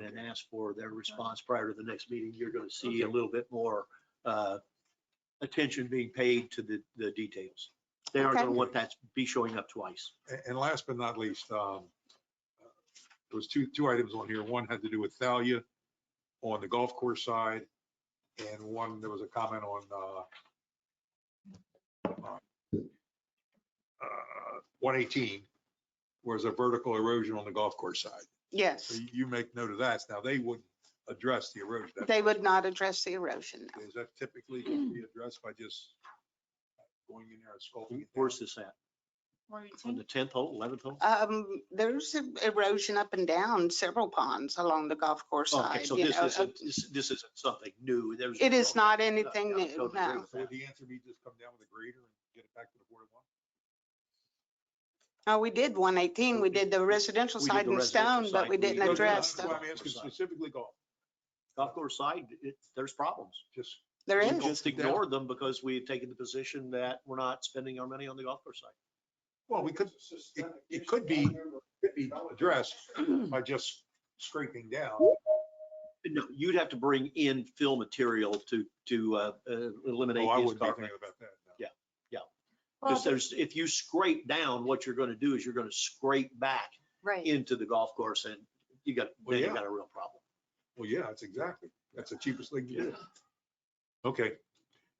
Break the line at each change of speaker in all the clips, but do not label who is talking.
and then ask for their response prior to the next meeting, you're going to see a little bit more uh, attention being paid to the, the details. They aren't
Okay.
going to want that to be showing up twice.
A- And last but not least, um, there was two, two items on here. One had to do with Thalia on the golf course side. And one, there was a comment on, uh, uh, 118 was a vertical erosion on the golf course side. So
Yes,
you- you make note of that. Now, they wouldn't address the erosion. That-
they would not address the erosion. no.
Is that typically can be addressed by just going in there and sculpting? it down?
Where's this at? On the tenth hole, eleventh hole?
Um, there's erosion up and down several ponds along the golf course
Okay,
side,
so
you
this
know. um,
isn't, this- this isn't something new. There's.
It is not
Yeah, I
anything new,
totally agree
no.
with
So
that.
would the answer be just come down with a grader and get it back to the board at once?
Oh, we did one eighteen, we did the residential
We did
side
the
in
residential
stone, but
side.
we
We
didn't
did-
No, no, no,
address
that's
the-
them.
why I'm asking specifically golf,
Golf course side, it, there's problems.
just,
There
We
is,
Just ignored them because we had taken the position that we're not spending our money on the golf course side.
well, we could, it, it could be, could be addressed by just scraping down.
No, you'd have to bring in fill material to, to uh, uh, eliminate
Oh, I
his
wouldn't be
comment.
thinking about that. no.
Yeah.
Well,
Because there's, if you scrape down, what you're gonna do is you're gonna scrape back
Right.
into the golf course and you got,
Well,
then you
yeah.
got a real problem.
Well, yeah, that's exactly, that's the cheapest thing to do. Okay,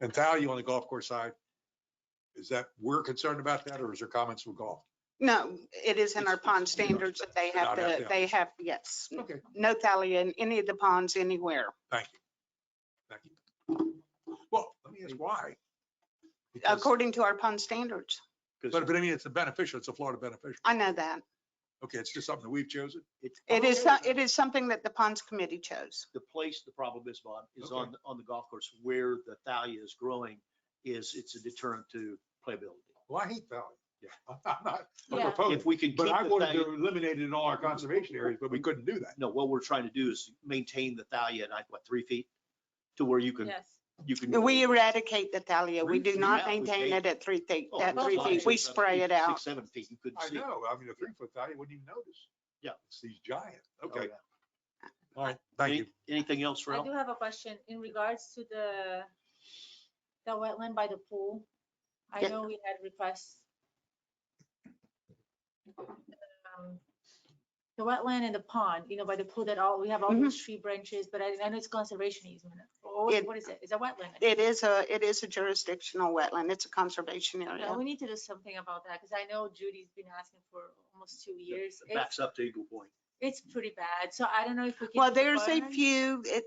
and Thalia on the golf course side, is that, we're concerned about that, or is there comments with golf?
no, it is in
It's-
our pond
it's not-
standards that they have
not out
to,
there.
they have, yes.
Okay,
No thalia in any of the ponds anywhere.
thank you. Thank you. Well, let me ask why. Because-
according to our pond standards.
But,
Because
but I mean, it's a beneficial, it's a Florida beneficial.
I know that.
Okay, it's just something that we've chosen.
Oh,
It is,
Okay.
so- it is something that the ponds committee chose.
the place, the problem is, Bob, is
Okay.
on, on the golf course where the thalia is growing is it's a deterrent to playability.
Well, I hate Valley.
Yeah.
I'm not I'm
Yeah.
If
opposed,
we can keep
but I
the
wanted
thalia,
to eliminate it in all our conservation areas, but we couldn't do that.
no, what we're trying to do is maintain the thalia at, like, what, three feet? To where you can,
Yes.
you can.
We eradicate the thalia. We do
Really?
not
Yeah, we
maintain
do.
it at three feet,
Oh,
at
it's
three
not
feet. We
six, seven
spray
feet,
it out.
Six, seven feet, you couldn't
I
see. it.
know, I mean, a three foot Valley wouldn't even notice.
Yeah.
It's these giants.
Oh,
Okay,
yeah.
all right, thank
Any-
you.
Anything else,
I
Ralph?
do have a question in regards to the, the wetland by the pool. I
Yeah.
know we had requests. um, The wetland and the pond, you know, by the pool that all, we have all these tree branches, but I, I know it's conservation easement. Or
Mm-hmm. It-
What what is it? It's a wetland.
It is a, it is a jurisdictional wetland. It's a conservation
Yeah,
area.
we need to do something about that because I know Judy's been asking for almost two years.
It
It's,
Backs up to Eagle Point.
it's pretty bad. So I don't know if we can.
Well, there's a
burn-
few, it,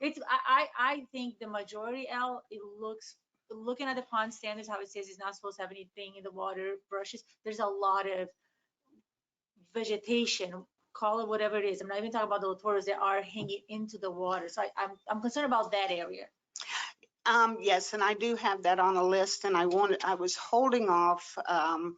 It's, I, I, I think the majority, L, it looks, looking at the pond standards, how it says it's not supposed to have anything in the water, brushes, there's a lot of vegetation, call it whatever it is. I'm not even talking about the latoras that are hanging into the water. So I, I'm, I'm concerned about that area.
um, yes, and I do have that on a list and I wanted, I was holding off, um,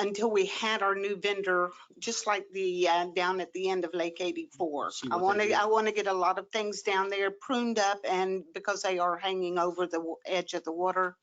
until we had our new vendor, just like the, uh, down at the end of Lake 84.
See
I
what
want
they
to,
do.
I want to get a lot of things down there pruned up and because they are hanging over the wa- edge of the water.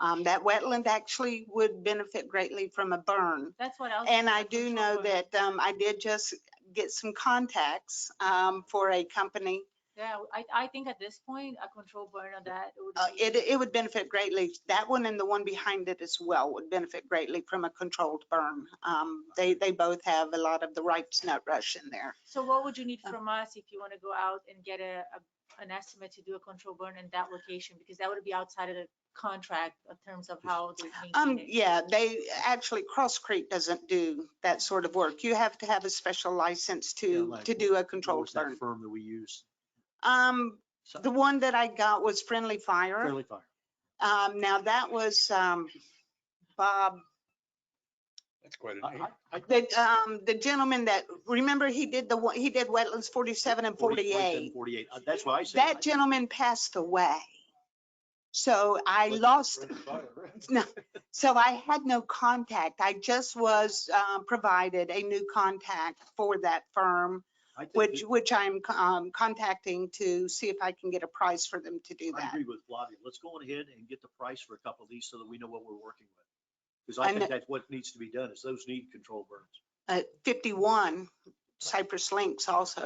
Um, That wetland actually would benefit greatly from a burn.
That's what I was.
And I
I'm
do
concerned
know
about.
that um, I did just get some contacts um, for a company.
Yeah, I, I think at this point, a control burn on that would
Uh,
be.
It, it would benefit greatly. That one and the one behind it as well would benefit greatly from a controlled burn. Um, They, they both have a lot of the ripe nut rush in there.
So what would you need
Um,
from us if you want to go out and get a, a- an estimate to do a control burn in that location? Because that would be outside of the contract in terms of how they
Um,
Mm-hmm.
maintain it.
yeah, they, actually, Cross Creek doesn't do that sort of work. You have to have a special license to,
like
to do a
What
controlled
was that
burn.
firm that we use?
Um,
So-
the one that I got was Friendly Fire.
Fairly Fire.
Um, now that was, um, Bob,
That's quite
I-
an eight.
I- I-
the, um, the gentleman that, remember he did the, one- he did Wetlands forty-seven and
40, 47, 48.
forty-eight.
Uh, That's what I said.
That gentleman passed away. So I lost No, so I had no contact. I just was um, provided a new contact for that firm,
I think
which,
that-
which I'm um, contacting to see if I can get a price for them to do
I
that.
agree with Flavia. Let's go on ahead and get the price for a couple of these so that we know what we're working with. Because
I
I
kn-
think that's what needs to be done is those need control burns.
Uh, 51 Uh, Cypress Links also.